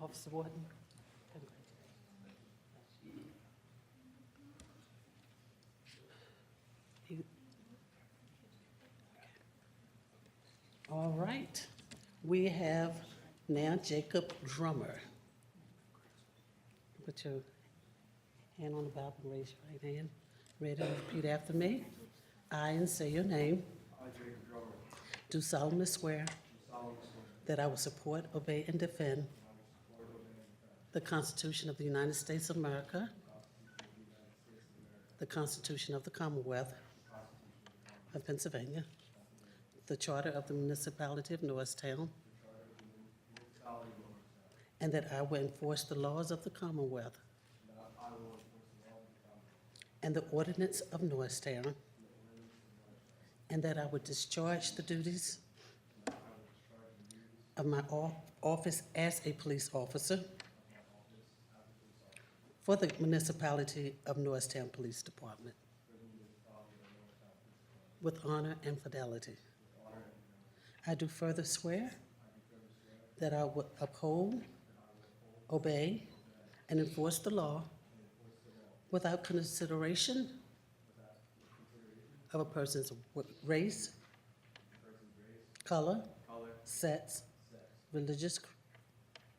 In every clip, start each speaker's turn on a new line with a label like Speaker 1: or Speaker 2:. Speaker 1: Officer Warden. All right, we have now Jacob Drummer. Put your hand on the Bible, and raise your right hand. Ready and repeat after me. I, and say your name,
Speaker 2: I, Jacob Drummer, do
Speaker 1: do solemnly swear
Speaker 2: solemnly swear
Speaker 1: that I will support, obey, and defend
Speaker 2: that I will support and obey
Speaker 1: The Constitution of the United States of America. The Constitution of the Commonwealth of Pennsylvania. The Charter of the Municipality of Norristown.
Speaker 2: the Charter of the Lord,
Speaker 1: And that I will enforce the laws of the Commonwealth
Speaker 2: and that I will enforce the law of the Commonwealth
Speaker 1: and the ordinance of Norristown. And that I will discharge the duties of my o- office as a police officer for the municipality of Norristown Police Department. With honor and fidelity. I do further swear that I will uphold, obey, and enforce the law without consideration of a person's w- race, color,
Speaker 2: color,
Speaker 1: sex, religious c-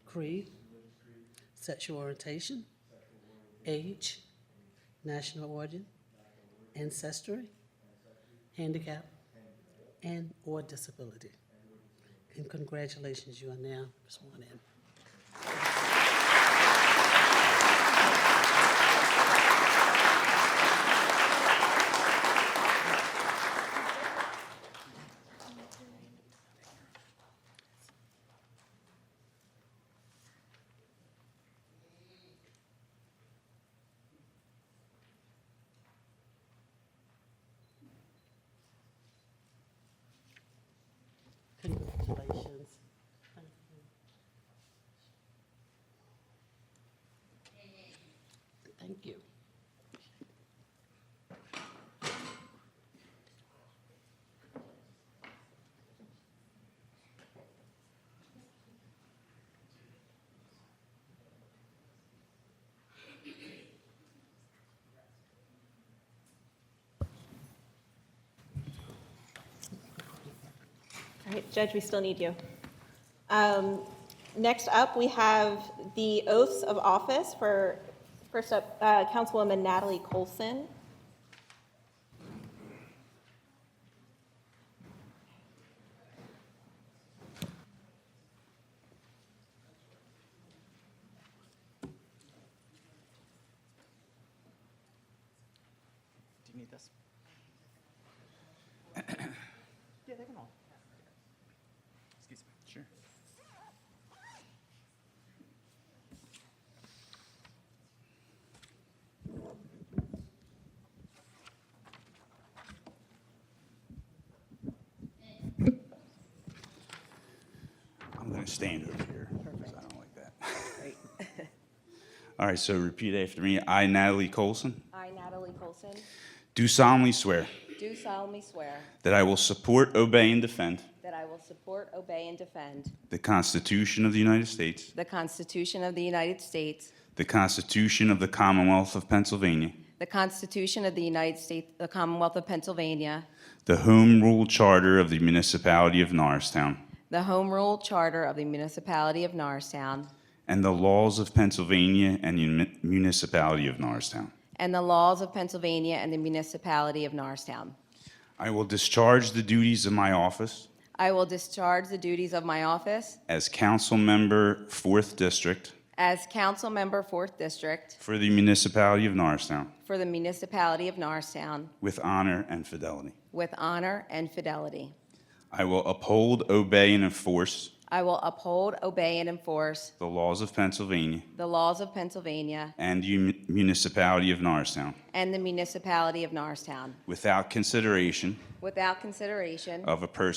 Speaker 1: creed, sexual orientation, age, national origin, ancestry, handicap, and/or disability. And congratulations, you are now sworn in. Congratulations. Thank you. Thank you.
Speaker 3: All right, Judge, we still need you. Um, Next up, we have the oaths of office for, first up, uh, Councilwoman Natalie Colson.
Speaker 4: Do you need this? Yeah, they can all. Excuse me. Sure.
Speaker 5: I'm going to stand over here because I don't like that. All right, so repeat after me. I, Natalie Colson,
Speaker 6: I, Natalie Colson,
Speaker 5: do solemnly swear
Speaker 6: do solemnly swear
Speaker 5: that I will support, obey, and defend
Speaker 6: that I will support, obey, and defend
Speaker 5: the Constitution of the United States,
Speaker 6: the Constitution of the United States,
Speaker 5: the Constitution of the Commonwealth of Pennsylvania,
Speaker 6: the Constitution of the United States, the Commonwealth of Pennsylvania,
Speaker 5: the Home Rule Charter of the Municipality of Norristown,
Speaker 6: the Home Rule Charter of the Municipality of Norristown,
Speaker 5: and the laws of Pennsylvania and the mun- Municipality of Norristown.
Speaker 6: and the laws of Pennsylvania and the Municipality of Norristown.
Speaker 5: I will discharge the duties of my office
Speaker 6: I will discharge the duties of my office
Speaker 5: as council member, 4th District,
Speaker 6: as council member, Fourth District,
Speaker 5: for the Municipality of Norristown.
Speaker 6: for the Municipality of Norristown,
Speaker 5: with honor and fidelity.
Speaker 6: with honor and fidelity.
Speaker 5: I will uphold, obey, and enforce
Speaker 6: I will uphold, obey, and enforce
Speaker 5: the laws of Pennsylvania
Speaker 6: the laws of Pennsylvania
Speaker 5: and the mun- municipality of Norristown
Speaker 6: and the municipality of Norristown,
Speaker 5: without consideration
Speaker 6: without consideration
Speaker 5: of a person.